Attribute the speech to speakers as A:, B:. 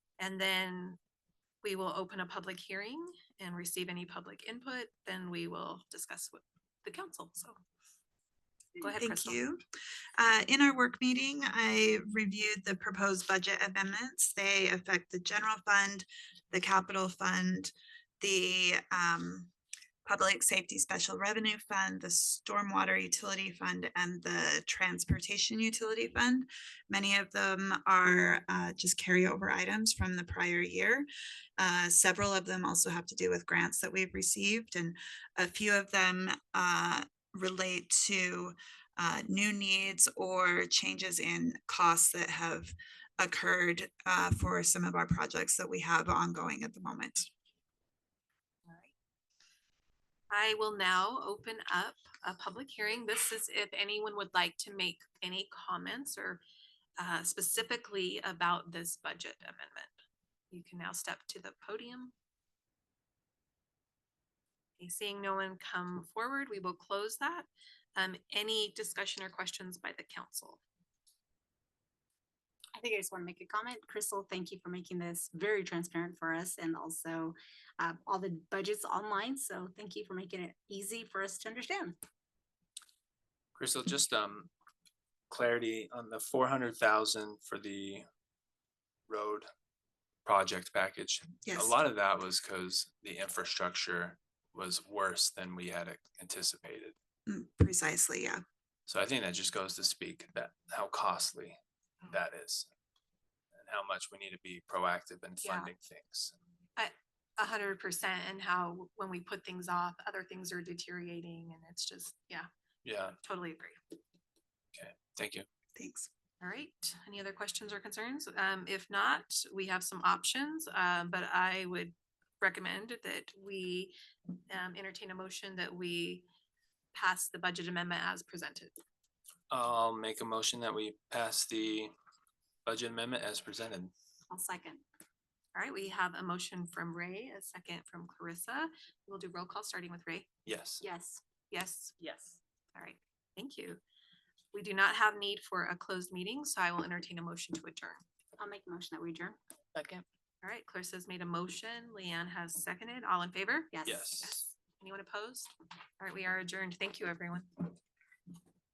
A: And then we will open a public hearing and receive any public input, then we will discuss with the council, so. Go ahead,
B: Thank
A: Crystal.
B: you. Uh, in our work meeting, I reviewed the proposed budget amendments. They affect the general fund, the capital fund, the, um, public safety special revenue fund, the stormwater utility fund, and the transportation utility fund. Many of them are, uh, just carryover items from the prior year. Uh, several of them also have to do with grants that we've received, and a few of them, uh, relate to uh, new needs or changes in costs that have occurred uh, for some of our projects that we have ongoing at the moment.
A: I will now open up a public hearing. This is if anyone would like to make any comments or uh, specifically about this budget amendment. You can now step to the podium. Okay, Seeing no one come forward, we will close that. Um, Any discussion or questions by the council?
C: I think I just want to make a comment. Crystal, thank you for making this very transparent for us and also uh, all the budgets online. So thank you for making it easy for us to understand.
D: Crystal, just um clarity on the four hundred thousand for the road project package.
B: Yes.
D: A lot of that was because the infrastructure was worse than we had anticipated.
B: Mm, Precisely, yeah.
D: So I think that just goes to speak that how costly that is. And how much we need to be proactive in
A: Yeah.
D: funding things.
A: A hundred percent and how when we put things off, other things are deteriorating and it's just, yeah,
D: Yeah,
A: totally agree.
D: thank you.
B: Thanks.
A: All right, any other questions or concerns? Um, if not, we have some options, um, but I would recommend that we um, entertain a motion that we pass the budget amendment as presented.
D: I'll make a motion that we pass the budget amendment as presented.
C: I'll second.
A: All right, we have a motion from Ray, a second from Clarissa. We'll do roll call, starting with Ray.
D: Yes.
C: Yes.
A: Yes,
C: Yes.
A: all right, thank you. We do not have need for a closed meeting, so I will entertain a motion to adjourn.
C: I'll make a motion that we adjourn.
E: Second.
A: All right, Clarissa's made a motion, Leanne has seconded, all in favor?
C: Yes.
D: Yes.
A: Anyone opposed? All right, we are adjourned. Thank you, everyone.